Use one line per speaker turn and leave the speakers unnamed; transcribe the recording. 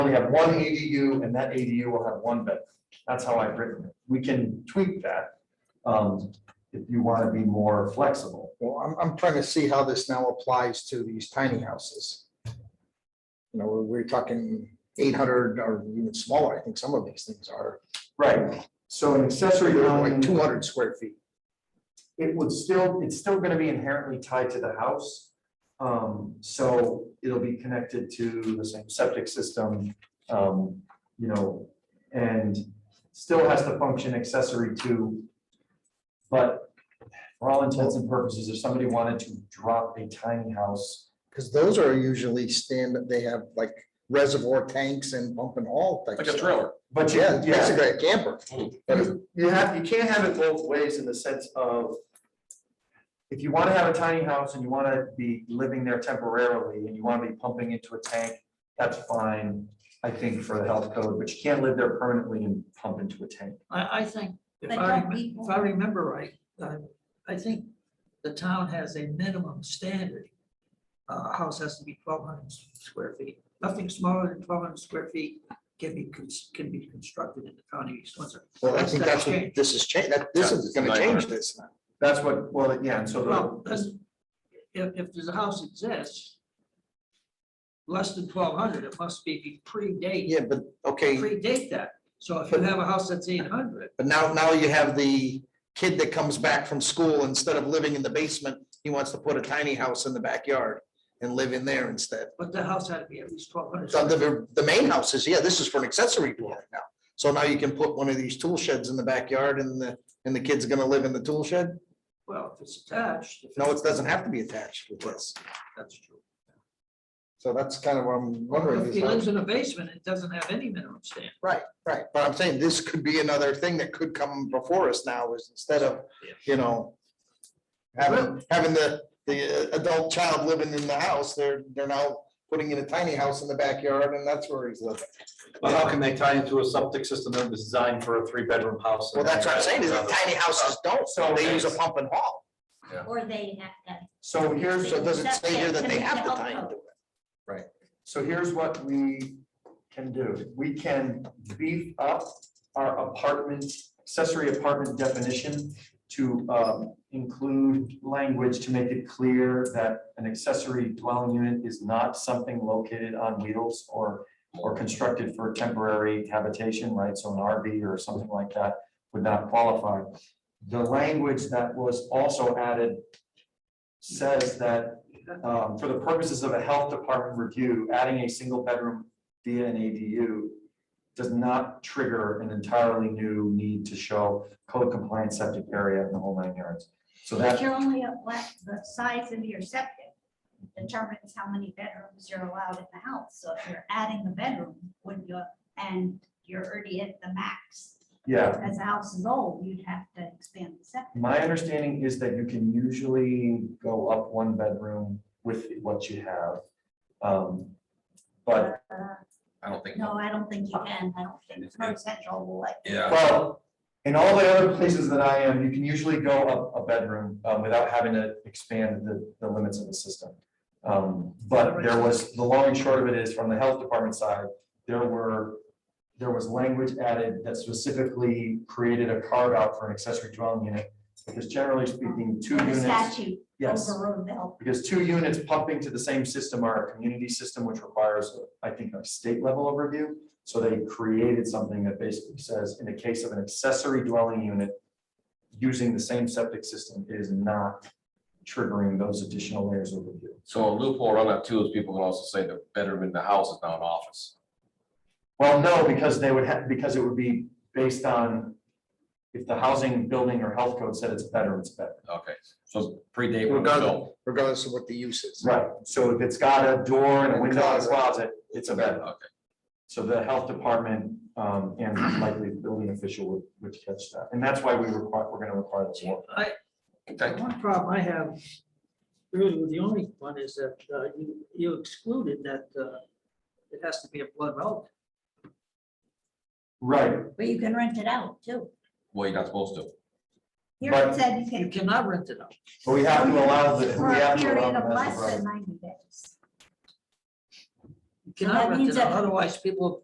only have one ADU and that ADU will have one bedroom. That's how I've written it. We can tweak that um, if you want to be more flexible.
Well, I'm, I'm trying to see how this now applies to these tiny houses. You know, we're, we're talking eight hundred or even smaller, I think some of these things are,
Right, so an accessory
like
dwelling,
two hundred square feet.
it would still, it's still going to be inherently tied to the house. Um, So it'll be connected to the same septic system, um, you know, and still has to function accessory to. But for all intents and purposes, if somebody wanted to drop a tiny house,
Because those are usually stand, they have like reservoir tanks and pump and all types.
like a Hmm. trailer.
but you,
Yeah,
yeah.
it's basically a camper. But it's-
You you have, you can't have it both ways in the sense of. If you wanna have a tiny house and you wanna be living there temporarily and you wanna be pumping into a tank, that's fine. I think for the health code, but you can't live there permanently and pump into a tank.
I, I think, if I,
But don't
remem-
we-
if I remember right, uh, I think the town has a minimum standard. Uh, A house has to be twelve hundred square feet, nothing smaller than twelve hundred square feet can be, cons- can be constructed in the county of East Windsor.
Well, I
That's
think
gotta
that's what
change.
this is changed, that, this
Yeah,
is gonna
nine
change
hundred.
this.
That's what, well, yeah, and so the,
Well, that's- if, if there's a house exists, less than twelve hundred, it must be predate,
Yeah, but, okay,
predate that. So if you have a house that's eight hundred,
but now, now you have the kid that comes back from school, instead of living in the basement, he wants to put a tiny house in the backyard and live in there instead.
but the house had to be at least twelve hundred.
So The, the main house is, yeah, this is for an accessory dwelling now. So now you can put one of these tool sheds in the backyard and the, and the kid's gonna live in the tool shed?
Well, if it's attached. if
No,
it's-
it doesn't have to be attached with this.
That's true.
So that's kind of what I'm wondering.
If
is
he lives
how-
in a basement, it doesn't have any minimum standard.
Right, but I'm saying this could be another thing that could come before us now is instead of, you know, having, having the, the uh, adult child living in the house, they're, they're now putting in a tiny house in the backyard and that's where he's living.
Well, how can they tie into a septic system that was designed for a three-bedroom house?
Well, that's what I'm saying, is that tiny houses don't, so they use a pump and haul.
Or they have to.
so here's,
So it doesn't say here that they have the
Septic,
time to do it.
so here's what we can do. We can beef up our apartment, accessory apartment definition to um, include language to make it clear that an accessory dwelling unit is not something located on wheels or, or constructed for temporary habitation, right? So an RV or something like that would not qualify. The language that was also added says that um, for the purposes of a health department review, adding a single bedroom via an ADU does not trigger an entirely new need to show code compliant septic area in the whole nine yards. So
But
that,
you're only, allowed- the size of your septic determines how many bedrooms you're allowed in the house. So if you're adding a bedroom, when you, and you're already at the max,
yeah,
as the house is old, you'd have to expand the septic.
my understanding is that you can usually go up one bedroom with what you have. Um, But,
Uh,
I don't think,
No, I don't think you can. I don't think North Central will let you.
yeah,
well, in all the other places that I am, you can usually go up a bedroom um, without having to expand the, the limits of the system. Um, But there was, the long and short of it is, from the health department side, there were, there was language added that specifically created a carve out for an accessory dwelling unit. Because generally speaking, two
The
units.
statute
Yes.
overrode the health.
Because two units pumping to the same system are a community system, which requires, I think, a state level of review. So they created something that basically says, in the case of an accessory dwelling unit, using the same septic system is not triggering those additional layers of review.
so a loophole around that too is people can also say the bedroom in the house is now an office.
Well, no, because they would have, because it would be based on if the housing, building, or health code said it's better, it's better.
Okay, so predate. when it was
Regardless,
built.
regardless of what the use is.
Right. So if it's got a door and a window and a closet, it's a bedroom.
Okay,
So the health department um and likely the building official would would catch that. And that's why we require, we're gonna require this
See,
more.
I,
okay.
One problem I have, really, the only one is that uh, you, you excluded that uh, it has to be a blood relative.
Right,
But you can rent it out too.
Well, you're not supposed to.
Here
But-
it said you
You
can.
cannot rent it out.
but we have to allow the,
For
we
a
have to
period
allow
of
the
less
master
than
bedroom.
ninety days.
You cannot
that
rent
means
it out,
that-
otherwise people